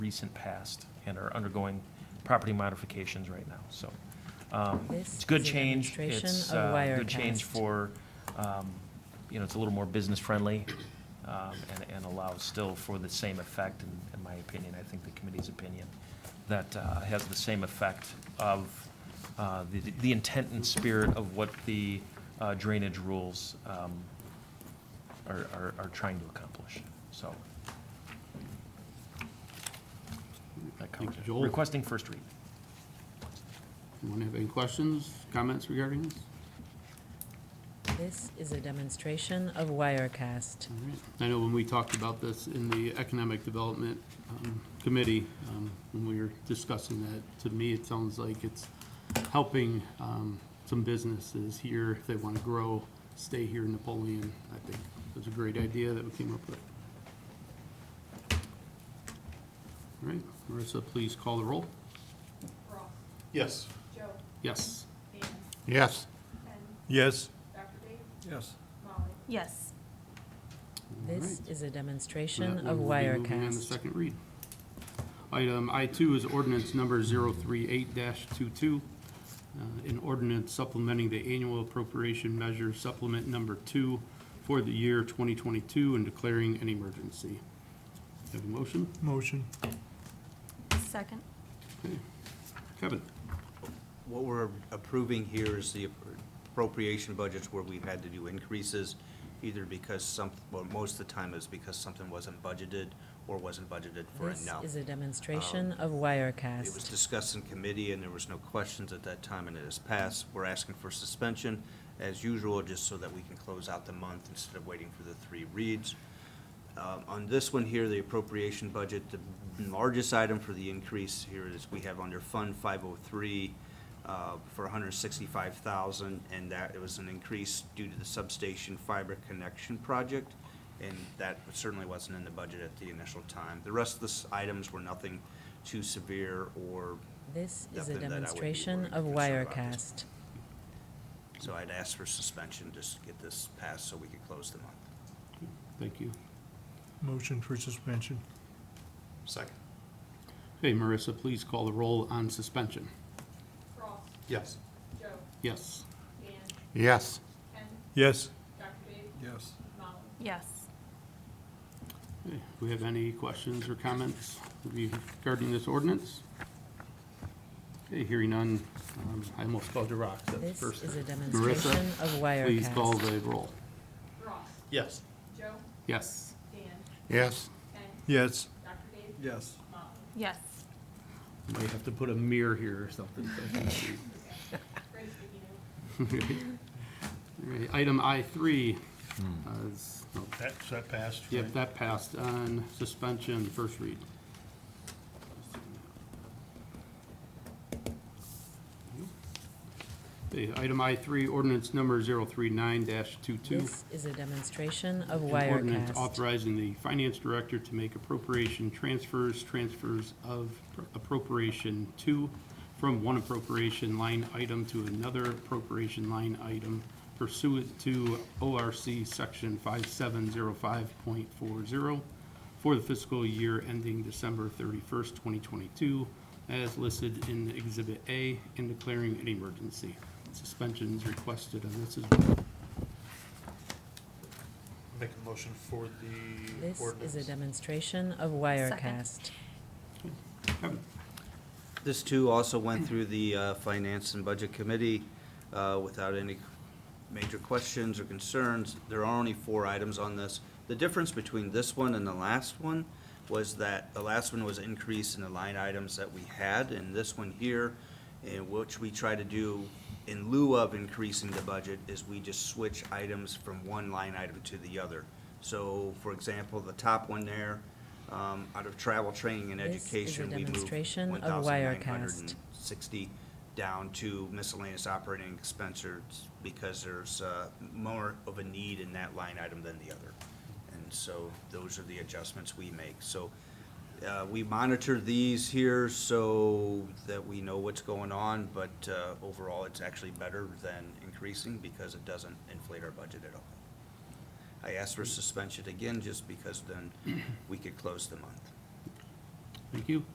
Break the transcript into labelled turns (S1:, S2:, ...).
S1: recent past and are undergoing property modifications right now, so. um,
S2: This
S1: It's good
S2: is a
S1: change.
S2: demonstration
S1: It's
S2: of
S1: uh, good change
S2: Wirecast.
S1: for, um, you know, it's a little more business-friendly um, and and allows still for the same effect, in in my opinion, I think the committee's opinion, that uh, has the same effect of uh, the the intent and spirit of what the uh, drainage rules um, are- are are trying to accomplish, so. That covers it.
S3: Joel.
S1: Requesting first read.
S3: Anyone have any questions, comments regarding this?
S2: This is a demonstration of Wirecast.
S3: All right. I know when we talked about this in the Economic Development um, Committee, um, when we were discussing that, to me, it sounds like it's helping um, some businesses here, if they want to grow, stay here in Napoleon. I think it was a great idea that we came up with. All right, Marissa, please call the roll.
S4: Ross,
S5: Yes.
S4: Joe,
S3: Yes.
S4: Dan,
S5: Yes.
S4: Ken,
S5: Yes.
S4: Dr. Dave,
S5: Yes.
S4: Molly.
S6: Yes,
S3: All right.
S2: This is a
S3: So that
S2: demonstration of
S3: one will be moving On the
S2: Wirecast.
S3: second read. Item I two is ordinance number 038-22, uh, an ordinance supplementing the annual appropriation measure supplement number two for the year twenty twenty-two and declaring an emergency. Have a motion?
S5: Motion.
S6: second,
S3: Kevin?
S7: What we're approving here is the appropriation budgets where we've had to do increases, either because some, well, most of the time is because something wasn't budgeted or wasn't budgeted for
S2: This
S7: enough.
S2: is a
S3: Um,
S2: demonstration of
S7: It was
S2: Wirecast.
S7: discussed in committee, and there was no questions at that time, and it has passed. We're asking for suspension, as usual, just so that we can close out the month instead of waiting for the three reads. Um, On this one here, the appropriation budget, the largest item for the increase here is we have under Fund 503 uh, for 165,000, and that, it was an increase due to the substation fiber connection project, and that certainly wasn't in the budget at the initial time. The rest of the s- items were nothing too severe or,
S2: This is a
S7: Nothing that I would be
S2: demonstration
S7: worried
S2: of
S7: concerned about this.
S2: Wirecast.
S7: so I'd ask for suspension just to get this passed so we could close the month.
S3: Thank you.
S5: Motion for suspension.
S7: Second.
S3: Hey, Marissa, please call the roll on suspension.
S4: Ross,
S5: Yes.
S4: Joe,
S3: Yes.
S4: Dan,
S5: Yes.
S4: Ken,
S5: Yes.
S4: Dr. Dave,
S5: Yes.
S4: Molly.
S6: yes.
S3: Okay, Do we have any questions or comments regarding this ordinance? Okay, hearing none. Um, I almost called you rock. That's the
S2: This
S3: first
S2: is a
S3: time.
S2: demonstration of
S3: Marissa, please call
S2: Wirecast.
S3: the roll.
S4: Ross,
S5: Yes.
S4: Joe,
S3: Yes.
S4: Dan,
S5: Yes.
S4: Ken,
S5: Yes.
S4: Dr. Dave,
S5: Yes.
S4: Molly.
S6: Yes.
S3: Might have to put a mirror here or something. so I can see.
S4: Great speaking of.
S3: All right, Item I three. uh, is- oh,
S5: That, that passed.
S3: Yep, that passed on suspension, first read. Okay, Item I three, ordinance number 039-22.
S2: This is a demonstration of
S3: An ordinance
S2: Wirecast.
S3: Authorizing the finance director to make appropriation transfers, transfers of appropriation to, from one appropriation line item to another appropriation line item pursuant to ORC Section 5705.40 for the fiscal year ending December 31st, 2022, as listed in Exhibit A, and declaring an emergency. Suspension is requested on this as well.
S5: Make a motion for the
S2: This is a demonstration of Wirecast.
S3: Kevin?
S7: This too also went through the uh, Finance and Budget Committee uh, without any major questions or concerns. There are only four items on this. The difference between this one and the last one was that the last one was increase in the line items that we had, and this one here, in which we try to do in lieu of increasing the budget, is we just switch items from one line item to the other. So, for example, the top one there, um, out of travel, training, and
S2: This is a
S7: education, we moved
S2: demonstration of
S7: one thousand nine hundred
S2: Wirecast.
S7: and sixty down to miscellaneous operating expenses because there's, uh, more of a need in that line item than the other. And so those are the adjustments we make. So, uh, we monitor these here so that we know what's going on, but, uh, overall, it's actually better than increasing because it doesn't inflate our budget at all. I asked for suspension again just because then we could close the month.
S3: Thank you.